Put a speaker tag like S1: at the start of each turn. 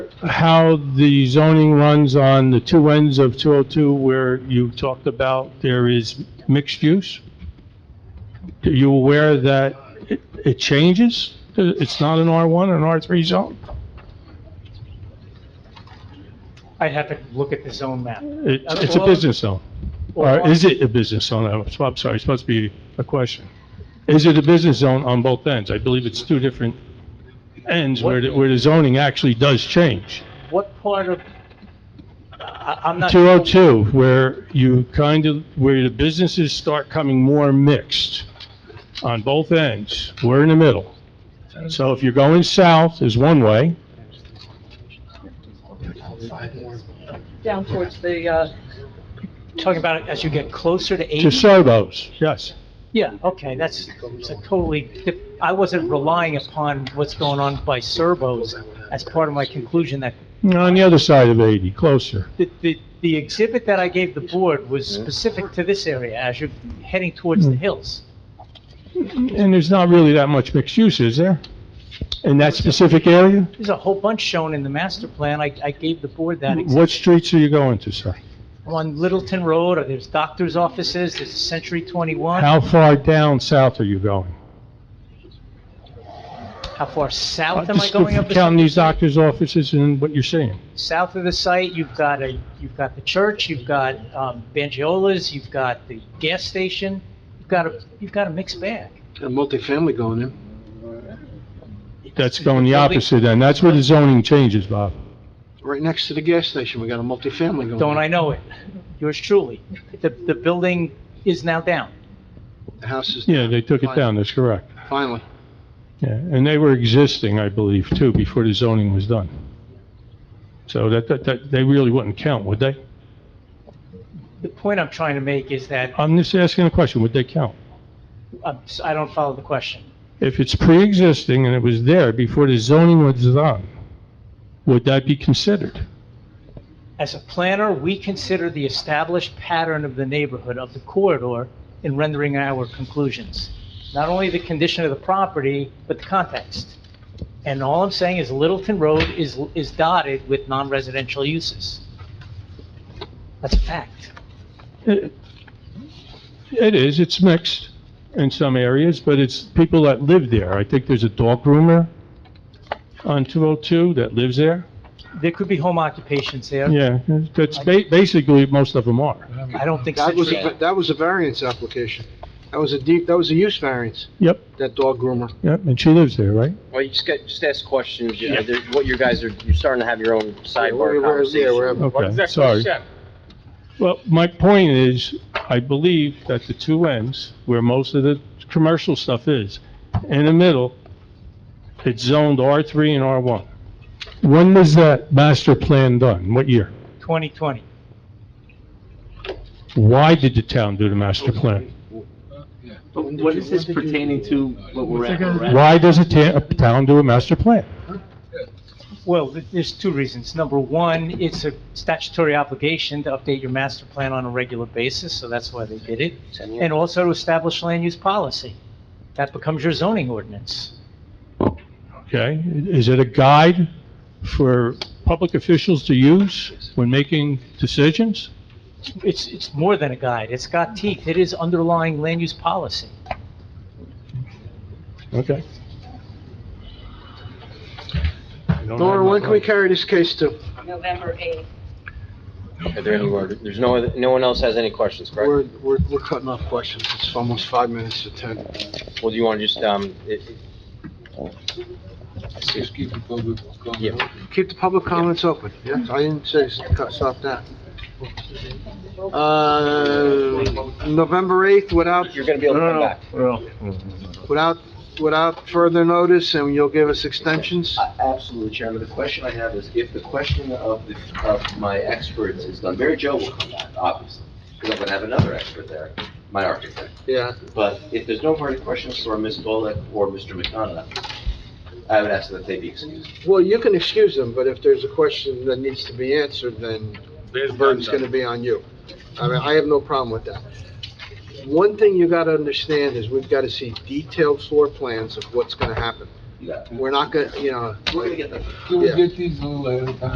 S1: how the zoning runs on the two ends of 202 where you talked about there is mixed use? Are you aware that it- it changes? It's not an R1 or an R3 zone?
S2: I'd have to look at the zone map.
S1: It- It's a business zone. Or is it a business zone? I'm so- I'm sorry, it's supposed to be a question. Is it a business zone on both ends? I believe it's two different ends where the where the zoning actually does change.
S2: What part of, I, I'm not.
S1: 202, where you kind of, where the businesses start coming more mixed on both ends. We're in the middle. So if you're going south is one way,
S3: down towards the, uh,
S2: Talking about it as you get closer to
S1: to
S2: 80?
S1: Sobos, yes.
S2: Yeah, okay, that's, it's a totally, dif- I wasn't relying upon what's going on by Servos as part of my conclusion that
S1: On the other side of 80, closer.
S2: the, the, the exhibit that I gave the board was specific to this area as you're heading towards
S1: Hmm.
S2: the hills.
S1: And there's not really that much mixed use, is there? In that specific area?
S2: There's a whole bunch shown in the master plan. I, I gave the board that exhibit.
S1: Hmm, What streets are you going to, sir?
S2: on Littleton Road, or there's doctor's offices, there's Century 21.
S1: How far down south are you going?
S2: How far south am I
S1: Just
S2: going up? the-
S1: Counting these doctor's offices and what you're seeing.
S2: South of the site, you've got a, you've got the church, you've got um, Bangiola's, you've got the gas station, you've got a, you've got a mixed bag.
S4: A multifamily going in.
S1: That's going the
S2: Building-
S1: opposite end. That's where the zoning changes, Bob.
S4: Right next to the gas station, we got a multifamily going.
S2: Don't I
S4: in.
S2: know it? Yours truly. The, the building is now down.
S4: The house is.
S1: Yeah, they took it down, that's correct.
S4: Finally.
S1: Yeah, and they were existing, I believe, too, before the zoning was done. So that, that, that, they really wouldn't count, would they?
S2: The point I'm trying to make is that,
S1: I'm just asking a question, would they count?
S2: I'm s- I don't follow the question.
S1: If it's pre-existing and it was there before the zoning was done, would that be considered?
S2: As a planner, we consider the established pattern of the neighborhood, of the corridor, in rendering our conclusions. Not only the condition of the property, but the context. And all I'm saying is Littleton Road is, is dotted with non-residential uses. That's a fact.
S1: It it is, it's mixed in some areas, but it's people that live there. I think there's a dog groomer on 202 that lives there.
S2: There could be home occupations there.
S1: Yeah, that's ba- basically, most of them are.
S2: I don't think
S4: That was,
S2: Situate.
S4: a- that was a variance application. That was a deep, that was a use variance,
S1: Yep,
S4: that dog groomer.
S1: yep, and she lives there, right?
S5: Well, you just get, just ask questions, you know, there- what your guys are, you're starting to have your own
S4: Where-
S5: sidebar
S4: where- Yeah,
S5: conversation.
S4: wherever.
S1: Okay, sorry. Well, my point is, I believe that the two ends, where most of the commercial stuff is, in the middle, it's zoned R3 and R1. When was that master plan done? What year?
S2: 2020.
S1: Why did the town do the master plan?
S6: What is this pertaining to what we're at? We're at-
S1: Why does a ta- a town do a master plan?
S2: Well, th- there's two reasons. Number one, it's a statutory obligation to update your master plan on a regular basis, so that's why they did it. And also to establish land use policy. That becomes your zoning ordinance.
S1: Okay, is it a guide for public officials to use when making decisions?
S2: It's, it's more than a guide. It's got teeth. It is underlying land use policy.
S1: Okay.
S4: Nora, when can we carry this case to?
S3: November 8th.
S5: Are there any word- There's no, other- no one else has any questions, correct?
S4: We're, we're, we're cutting off questions. It's almost five minutes to 10.
S5: Well, do you want to just, um, it-
S7: Just keep the public comment
S5: Yeah.
S7: open.
S4: Keep the public comments open. Yes, I didn't say s- cut- stop that. Uh, November 8th without,
S5: you're going to be able to come back.
S4: without, without further notice and you'll give us extensions?
S8: A- Uh, Absolutely, Chairman. The question I have is if the question of, the- of my experts is done, Mary Jo will come back, obviously, because I'm going to have another expert there, my architect.
S4: Yeah.
S8: But if there's no further questions for Ms. Dolek or Mr. McDonough, I would ask that they be excused.
S4: Well, you can excuse them, but if there's a question that needs to be answered, then the burden's gonna be on you. I mean, I have no problem with that. One thing you gotta understand is we've gotta see detailed floor plans of what's gonna happen.
S8: You got it.
S4: We're not gonna, you know,
S8: We're gonna get there.
S6: Can we
S4: Yeah.
S6: get these a little ahead of time?